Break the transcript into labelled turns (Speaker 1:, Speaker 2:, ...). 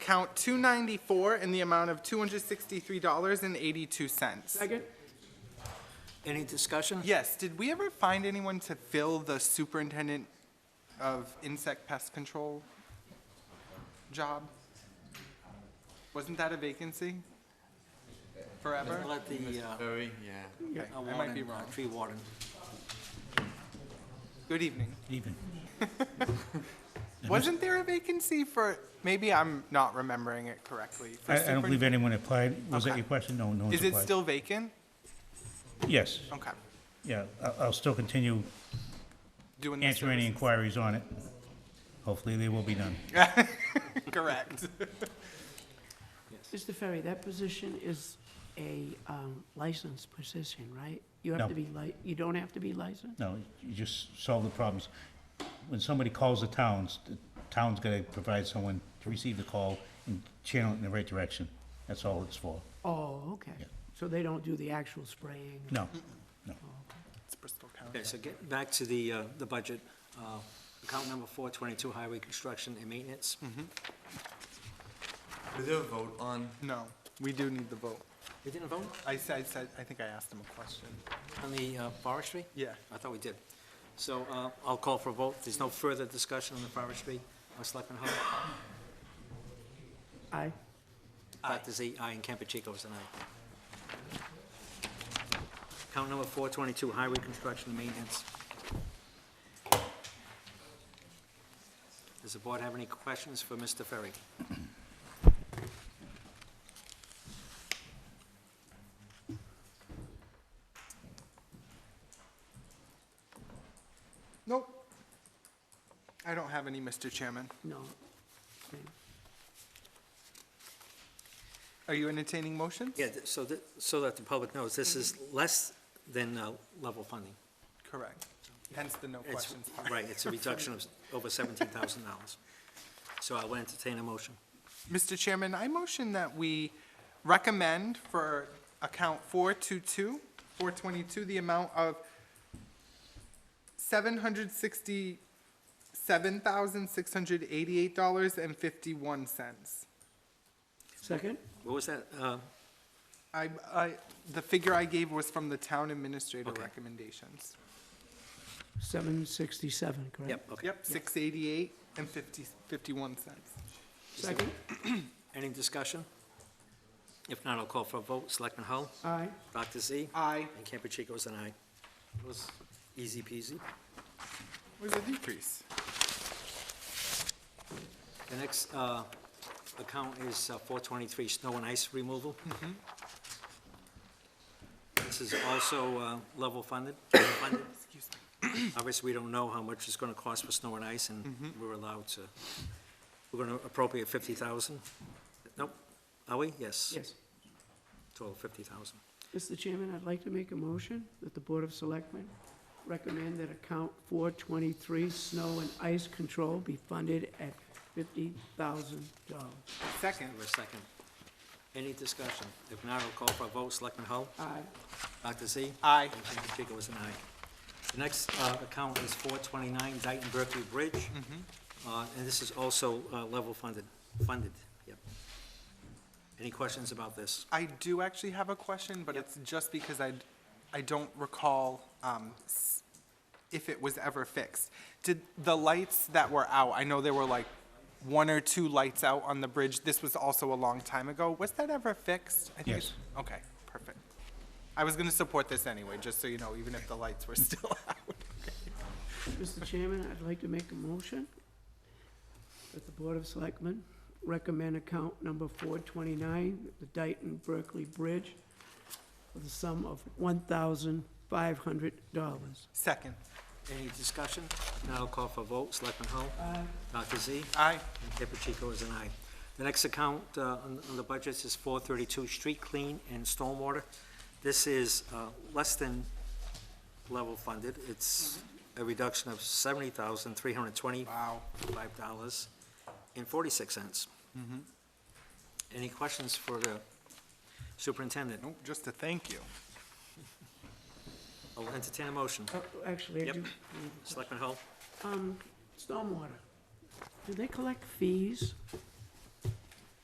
Speaker 1: account 294 in the amount of $263.82.
Speaker 2: Second?
Speaker 3: Any discussion?
Speaker 1: Yes, did we ever find anyone to fill the superintendent of insect pest control job? Wasn't that a vacancy? Forever?
Speaker 3: Let the, uh,
Speaker 4: Very, yeah.
Speaker 3: uh,
Speaker 1: I might be
Speaker 3: warden, uh,
Speaker 1: wrong.
Speaker 3: tree warden.
Speaker 1: Good evening.
Speaker 5: Even.
Speaker 1: Wasn't there a vacancy for, maybe I'm not remembering it correctly. for
Speaker 5: I, I don't believe
Speaker 1: superin-
Speaker 5: anyone applied. Was that
Speaker 1: Okay.
Speaker 5: your question? No, no one's
Speaker 1: Is it
Speaker 5: applied.
Speaker 1: still vacant?
Speaker 5: Yes,
Speaker 1: Okay.
Speaker 5: yeah. I'll, I'll still continue
Speaker 1: Doing the
Speaker 5: answering any
Speaker 1: services.
Speaker 5: inquiries on it. Hopefully, they will be done.
Speaker 1: Correct.
Speaker 2: Mr. Ferry, that position is a um, licensed position, right? You
Speaker 5: No.
Speaker 2: have to be li, you don't have to be licensed?
Speaker 5: No, you just solve the problems. When somebody calls the towns, the town's gotta provide someone to receive the call and channel it in the right direction. That's all it's for.
Speaker 2: Oh, okay.
Speaker 5: Yeah. Mm.
Speaker 2: So they don't do the actual spraying?
Speaker 5: No, no.
Speaker 1: It's Bristol
Speaker 3: Okay,
Speaker 1: County.
Speaker 3: so get back to the, uh, the budget. Uh, Account number 422, highway construction and maintenance.
Speaker 4: Was there a vote on?
Speaker 1: No, we do need the vote.
Speaker 3: We didn't vote
Speaker 1: I said, I said, I think I asked him a question.
Speaker 3: on the uh, forestry?
Speaker 1: Yeah.
Speaker 3: I thought we did. So uh, I'll call for a vote. There's no further discussion on the forestry. Uh, Selectman Hull?
Speaker 2: Aye.
Speaker 3: Dr. Z, aye, and Campuchico is an aye. Account number 422, highway construction and maintenance. Does the board have any questions for Mr. Ferry?
Speaker 1: Nope. I don't have any, Mr. Chairman.
Speaker 2: No. Okay.
Speaker 1: Are you entertaining motions?
Speaker 3: Yeah, th- so that, so that the public knows, this is less than uh, level funding.
Speaker 1: Correct. Hence the no
Speaker 3: It's-
Speaker 1: questions part.
Speaker 3: Right, it's a reduction of over $17,000. So I will entertain a motion.
Speaker 1: Mr. Chairman, I motion that we recommend for account 422, 422, the amount of $767,688.51.
Speaker 2: Second?
Speaker 3: What was that? Uh,
Speaker 1: I, I, the figure I gave was from the town administrator
Speaker 3: Okay.
Speaker 1: recommendations.
Speaker 2: 767, correct?
Speaker 3: Yep, okay.
Speaker 1: Yep, 688 and 50, 51 cents.
Speaker 2: Second?
Speaker 3: Any discussion? If not, I'll call for a vote. Selectman Hull?
Speaker 2: Aye.
Speaker 3: Dr. Z?
Speaker 1: Aye.
Speaker 3: And Campuchico's an aye. It was easy peasy.
Speaker 1: Was a decrease.
Speaker 3: The next uh, account is uh, 423, snow and ice removal. This is also uh, level funded. funded. Obviously, we don't know how much it's going to cost for snow and ice, and we're allowed to, we're going to appropriate 50,000. Nope, are we? Yes.
Speaker 2: Yes.
Speaker 3: Total 50,000.
Speaker 2: Mr. Chairman, I'd like to make a motion that the Board of Selectmen recommend that account 423, snow and ice control, be funded at $50,000.
Speaker 1: Second.
Speaker 3: Give a second. Any discussion? If not, I'll call for a vote. Selectman Hull?
Speaker 2: Aye.
Speaker 3: Dr. Z?
Speaker 1: Aye.
Speaker 3: And Mr. Pacheco is an aye. The next uh, account is 429 Dayton Berkeley Bridge, Uh, and this is also uh, level funded, funded, yep. Any questions about this?
Speaker 1: I do actually have a question, but it's just because I, I don't recall um, s- if it was ever fixed. Did the lights that were out, I know there were like one or two lights out on the bridge, this was also a long time ago, was that ever fixed? I think it's- Okay, perfect. I was gonna support this anyway, just so you know, even if the lights were still out.
Speaker 2: Mr. Chairman, I'd like to make a motion that the Board of Selectmen recommend account number 429, the Dayton Berkeley Bridge, for the sum of $1,500.
Speaker 1: Second,
Speaker 3: Any discussion? If not, I'll call for a vote. Selectman Hull?
Speaker 2: Aye.
Speaker 3: Dr. Z?
Speaker 1: aye.
Speaker 3: And Pacheco is an aye. The next account uh, on on the budgets is 432 Street Clean and Stormwater. This is uh, less than level funded. It's a reduction of $70,320.
Speaker 1: Wow.
Speaker 3: five dollars and forty-six cents. Any questions for the superintendent?
Speaker 1: Nope, just a thank you.
Speaker 3: I'll entertain a motion.
Speaker 2: Uh, Actually, I
Speaker 3: Yep.
Speaker 2: do,
Speaker 3: Selectman Hull?
Speaker 2: stormwater, do they collect fees